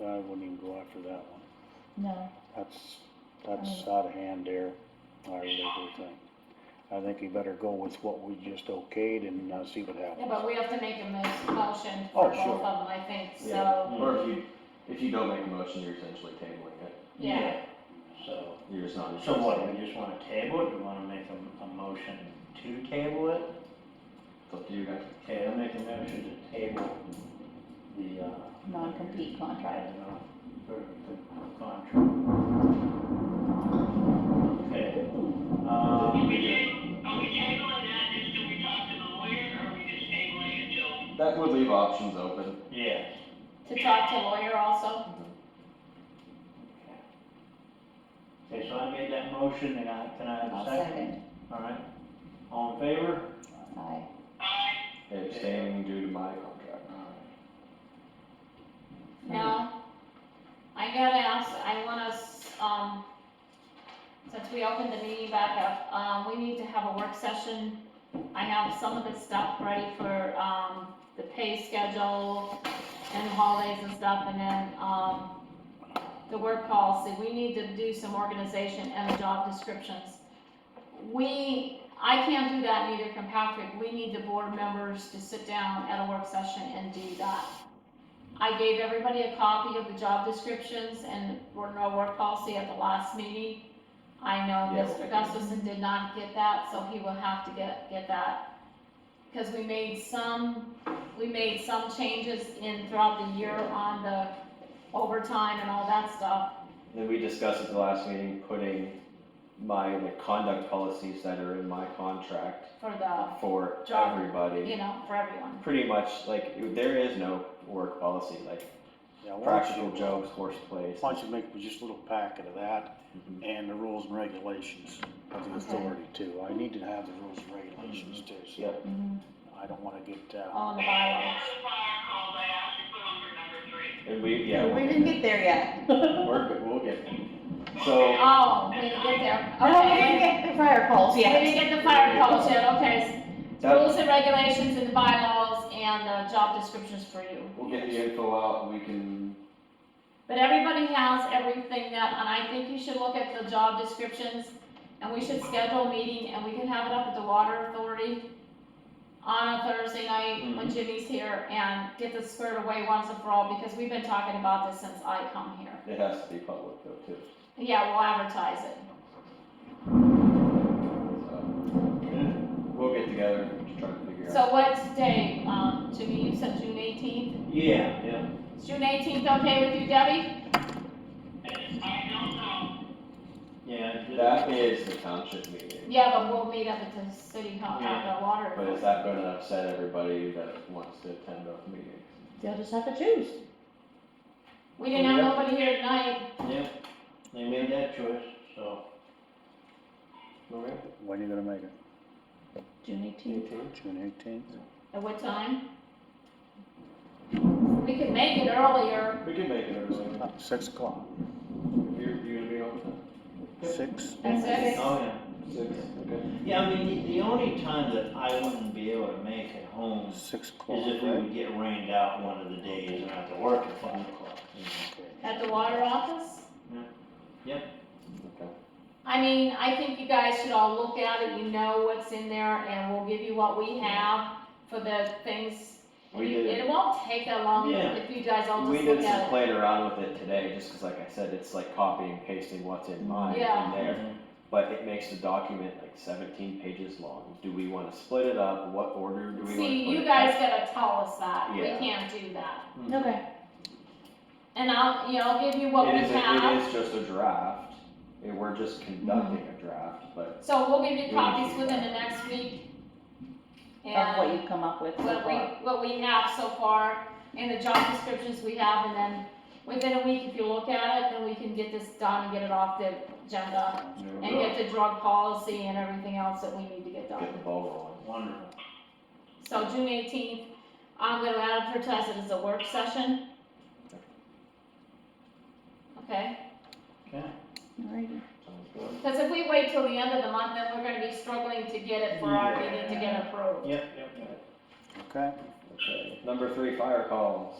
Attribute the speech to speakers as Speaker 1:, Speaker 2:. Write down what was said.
Speaker 1: I wouldn't even go after that one.
Speaker 2: No,
Speaker 1: That's, that's out of hand there, I really do think. I think you better go with what we just okayed and, uh, see what
Speaker 3: Yeah,
Speaker 1: happens.
Speaker 3: but we have to make a mo- motion
Speaker 1: Oh,
Speaker 3: for both
Speaker 1: sure.
Speaker 3: of them, I think, so,
Speaker 1: Yeah.
Speaker 4: Or if you, if you don't make a motion, you're essentially tabling it,
Speaker 3: yeah.
Speaker 5: So,
Speaker 4: you're just not.
Speaker 5: so what, we just wanna table it, do we wanna make a, a motion to table it?
Speaker 4: It's up to you guys.
Speaker 5: Okay, I'll make a motion to table the, uh.
Speaker 2: non-compete contract.
Speaker 5: I don't know, for the contract. Okay,
Speaker 6: Are
Speaker 5: um,
Speaker 6: we ta- are we tabling that just till we talk to the lawyer, or are we just tabling it till?
Speaker 4: That would leave options open.
Speaker 5: yeah,
Speaker 3: To talk to lawyer also?
Speaker 5: okay, so I made that motion, and I, can I have
Speaker 2: I'll
Speaker 5: a second?
Speaker 2: second.
Speaker 5: All right, all in favor?
Speaker 2: Aye.
Speaker 6: Aye.
Speaker 4: Abstaining due to my contract.
Speaker 3: No. I gotta ask, I want us, um, since we opened the meeting back up, um, we need to have a work session. I have some of the stuff ready for, um, the pay schedule and holidays and stuff, and then, um, the work policy, we need to do some organization and job descriptions. We, I can't do that, neither can Patrick, we need the board members to sit down at a work session and do that. I gave everybody a copy of the job descriptions and board no work policy at the last meeting. I know
Speaker 4: Yeah,
Speaker 3: Mr.
Speaker 4: okay.
Speaker 3: Gustafson did not get that, so he will have to get, get that. Cause we made some, we made some changes in throughout the year on the overtime and all that stuff.
Speaker 4: Then we discussed at the last meeting, putting my, the conduct policies that are in my contract
Speaker 3: for the,
Speaker 4: for
Speaker 3: Job. you
Speaker 4: everybody.
Speaker 3: know, for everyone.
Speaker 4: Pretty much, like, there is no work policy, like
Speaker 1: Yeah, why don't
Speaker 4: practical
Speaker 1: you-
Speaker 4: jokes, horseplay.
Speaker 1: Why don't you make just a little packet of that
Speaker 4: Mhm.
Speaker 1: and the rules and regulations of the
Speaker 2: Okay.
Speaker 1: authority too. I need to have the rules and regulations too, so
Speaker 4: Yep.
Speaker 2: Mhm.
Speaker 1: I don't wanna get, uh,
Speaker 3: All in the
Speaker 6: That's
Speaker 3: bylaws.
Speaker 6: another fire call that I should put on for number three.
Speaker 4: And we, yeah,
Speaker 2: We
Speaker 4: we'll,
Speaker 2: didn't get there yet. Oh,
Speaker 4: we're good, we'll get. So,
Speaker 3: Oh, we didn't get there.
Speaker 2: Oh, we
Speaker 3: Okay.
Speaker 2: didn't get the fire calls
Speaker 3: We didn't
Speaker 2: yet.
Speaker 3: get the fire calls yet, okay.
Speaker 4: that,
Speaker 3: Rules and regulations and the bylaws and the job descriptions for you.
Speaker 4: we'll get the info out, we can,
Speaker 3: But everybody has everything that, and I think you should look at the job descriptions, and we should schedule a meeting, and we can have it up at the water authority on a Thursday night
Speaker 4: Mm-hmm.
Speaker 3: when Jimmy's here, and get this squared away once and for all, because we've been talking about this since I come here.
Speaker 4: it has to be public though too,
Speaker 3: Yeah, we'll advertise it.
Speaker 4: so. We'll get together and try to figure out.
Speaker 3: So what's today, um, Jimmy, you said June eighteenth?
Speaker 5: Yeah, yeah.
Speaker 3: Is June eighteenth okay with you, Debbie?
Speaker 6: I don't know.
Speaker 5: Yeah. just-
Speaker 4: That is the township meeting,
Speaker 3: Yeah, but we'll meet up at the city hall, at the water.
Speaker 4: but is that gonna upset everybody that wants to attend our meeting?
Speaker 2: They'll just have to choose.
Speaker 3: We didn't have nobody here tonight,
Speaker 5: Yeah, they made that choice, so.
Speaker 4: Okay.
Speaker 1: when are you gonna make it?
Speaker 2: June eighteenth.
Speaker 1: June eighteenth?
Speaker 3: at what time? We could make it earlier.
Speaker 4: We can make it early,
Speaker 1: About six o'clock,
Speaker 4: if you're, you're gonna be on
Speaker 1: six?
Speaker 3: That's it.
Speaker 5: Oh, yeah.
Speaker 4: time. Six, okay.
Speaker 5: Yeah, I mean, the, the only time that I wouldn't be able to make it home is
Speaker 1: Six o'clock,
Speaker 5: if we
Speaker 1: right?
Speaker 5: would get rained out one of the days and have to work at five o'clock. you know.
Speaker 1: Okay.
Speaker 3: At the water office?
Speaker 4: Okay.
Speaker 3: I mean, I think you guys should all look at it, you know what's in there, and we'll give you what we have for the things.
Speaker 4: We
Speaker 3: You-
Speaker 4: did,
Speaker 3: It won't take that long
Speaker 5: Yeah.
Speaker 3: if you guys all
Speaker 4: we
Speaker 3: just
Speaker 4: did
Speaker 3: look
Speaker 4: some
Speaker 3: at it.
Speaker 4: playing around with it today, just cause like I said, it's like copying and pasting what's in mine in there.
Speaker 3: Yeah.
Speaker 4: But it makes the document like seventeen pages long, do we wanna split it up, what order do we wanna put it?
Speaker 3: See, you guys gotta tell us that, we
Speaker 4: Yeah.
Speaker 3: can't do that.
Speaker 2: Okay.
Speaker 3: And I'll, you know, I'll give you what we
Speaker 4: It is, a-
Speaker 3: have, Mm-hmm.
Speaker 4: it is just a draft, and we're just conducting a draft, but
Speaker 3: so we'll give you
Speaker 4: We
Speaker 3: copies
Speaker 4: need to-
Speaker 3: within the next week.
Speaker 2: Of what
Speaker 3: And
Speaker 2: you've come up with so
Speaker 3: what we,
Speaker 2: far.
Speaker 3: what we have so far, and the job descriptions we have, and then within a week, if you look at it, then we can get this done and get it off the agenda.
Speaker 4: There we
Speaker 3: And
Speaker 4: go.
Speaker 3: get the drug policy and everything else that we need to get done.
Speaker 4: Get the ball rolling.
Speaker 5: Wonderful.
Speaker 3: So June eighteenth, I'm gonna advertise it as a work session. Okay,
Speaker 2: Alrighty.
Speaker 4: Sounds good.
Speaker 3: because if we wait till the end of the month, then we're gonna be struggling to get it for our meeting to get approved.
Speaker 5: Yep, yep, yep.
Speaker 1: Okay,
Speaker 4: Okay. Number three, fire calls.